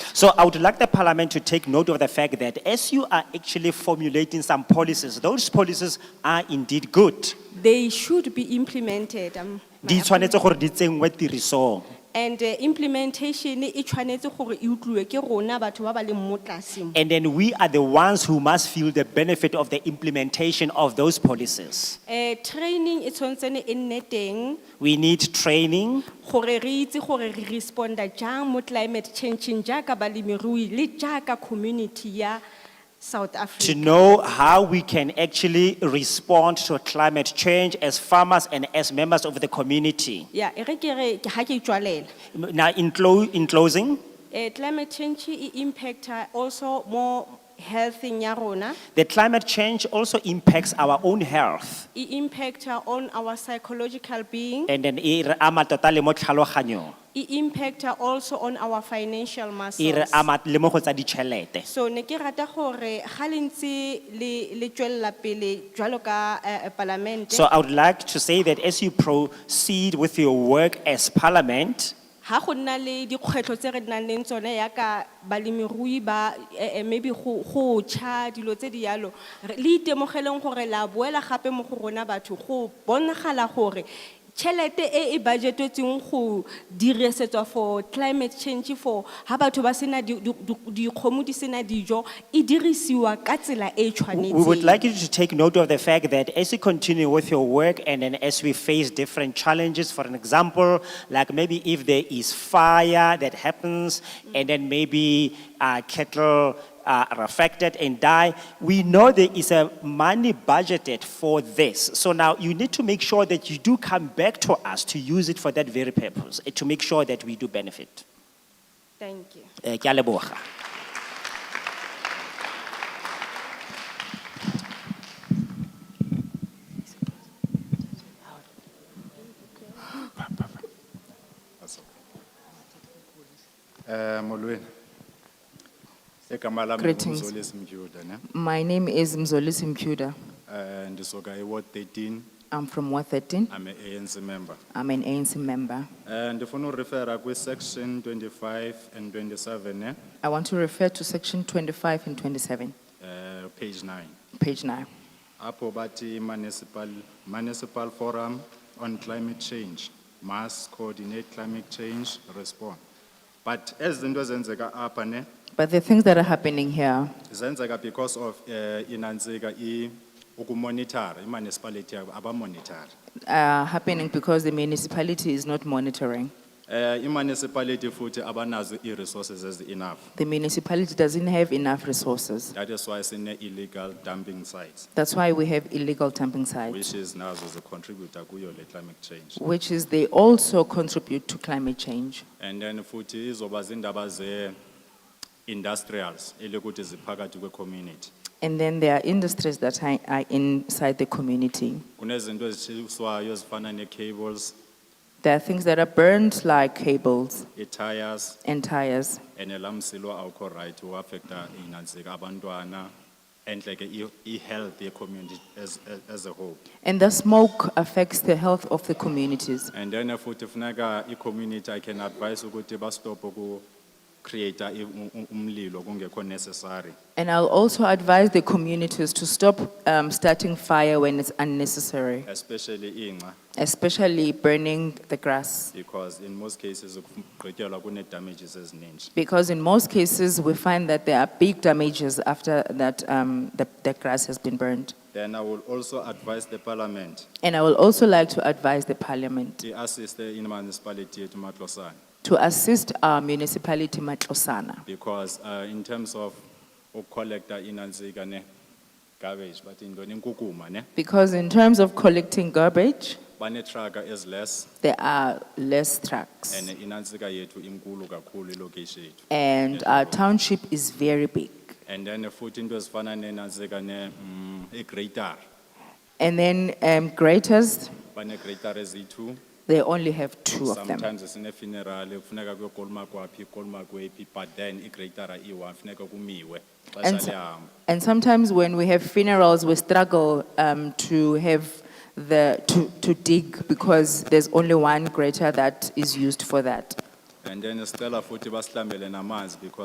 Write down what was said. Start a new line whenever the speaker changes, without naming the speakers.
So I would like the parliament to take note of the fact that as you are actually formulating some policies, those policies are indeed good.
They should be implemented. um, my
Di tshwanetse
opinion.
gore di tsenngwe tirisong.
And uh, implementation, eh, e tshwanetse gore e utlwiwe ke rona batho ba ba leng mo tlase mo.
And then we are the ones who must feel the benefit of the implementation of those policies.
Eh, training e tshwanetsene e nne teng
We need training.
gore re itse gore re responda jang mo climate changing jaaka balemirui le jaaka community ya South
to
Africa.
know how we can actually respond to climate change as farmers and as members of the community.
Yeah, e re ke re ke ha ke itswalela.
Now, in, clo- in closing,
Eh, climate change e impacta also mo healthing ya rona,
the climate change also impacts our own health
e impacta on our psychological being,
and then e re ama tota le mo tlhaloganyong,
e impacta also on our financial
e re
muscles.
ama le mo go tsa ditšhelete.
So ne ke rata gore ga le ntse le le tswella pele jwalo ka eh, eh, palamente,
So I would like to say that as you proceed with your work as parliament,
ha go nna le dikgwetlho tse re nang le tsone yaka balemirui ba eh, eh, maybe go go cha dilo tse di yalo re- le itemogeleng gore la boela gape mo go rona batho go bonagala gore tšhelete e e budgetetseng go dirisetswa for climate change for ha batho ba sena di- di- di- dikgomo di sena dijo e dirisiwa ka tsela e e
we would
tshwanetseng
like you to take note of the fact that as you continue with your work and then as we face different challenges, for an example, like maybe if there is fire that happens and then maybe uh, cattle uh, are affected and die, we know there is a money budgeted for this. So now you need to make sure that you do come back to us to use it for that very purpose, eh, to make sure that we do benefit.
thank you
Eh, ke a leboga.
Eh, molweni. Ekamala
Greetings.
Mzolis Mjuda, ne?
My name is Mzolisi Mkuda.
Eh, ndisoka Ward thirteen,
I'm from Ward 13.
I'm a ANC member.
I'm an ANC member.
Eh, ndifuna urefera kwi section twenty-five and twenty-seven, ne?
I want to refer to section 25 and 27,
Eh, page nine.
page 9.
Apho bathi municipal, municipal forum on climate change must coordinate climate change response. But as zinto zenzeka apha, ne?
But the things that are happening here,
Zenzeka because of eh inanzeka i, ukumonitor, i municipality abamonitor.
are happening because the municipality is not monitoring.
Eh, i-municipality futhi abanazo i-resources ezi-enough.
The municipality doesn't have enough resources.
That is why sine-illegal dumping sites,
That's why we have illegal dumping sites,
which is nazo zicontributor kuyo le climate change.
which is they also contribute to climate change.
And then futhi izoba zindaba ze-industrials, elikuthi ziphakathi kwe-community.
And then there are industries that are are inside the community.
Kunezinto ezitshiswayo ezifana ne-cables,
There are things that are burned like cables
i-tires,
and tires.
and elamsilo awukho right, uaffecta inanzika abantwana, and like i- i-health ye-community as, as- as a whole.
And the smoke affects the health of the communities.
And then uh, futhi funeka i-community I can advise ukuthi bastop ku create um, umlilo kungekho necessary.
And I'll also advise the communities to stop um, starting fire when it's unnecessary,
Especially inga,
especially burning the grass.
because in most cases kugqityelwa kune damages ezininji.
Because in most cases, we find that there are big damages after that um, the, the grass has been burned.
Then I will also advise the parliament,
And I will also like to advise the parliament
i-assist in municipality yethu Matlosan.
to assist our municipality Matlosana
Because uh, in terms of ukollecta inanzika ne garbage, but in inkukuma ne,
because in terms of collecting garbage,
bane traga is less
there are less trucks.
and inanzika yetu inkulu kakulu ilokishi yethu.
and our township is very big.
And then futhi into ezifana nenanzika ne, mm, i-grater,
And then um, graters,
bane-grater eziyi-two.
they only have two of them.
Sometimes sine-funeral, kufuneka kuyokoluma kwaphi, koluma kwephi, but then i-grater iwa, funeka kumiwe.
And,
xesha
so-
lihamba.
and sometimes when we have funerals, we struggle um, to have the, to, to dig because there's only one grater that is used for that.
And then sicela futhi basihlambele namanzi because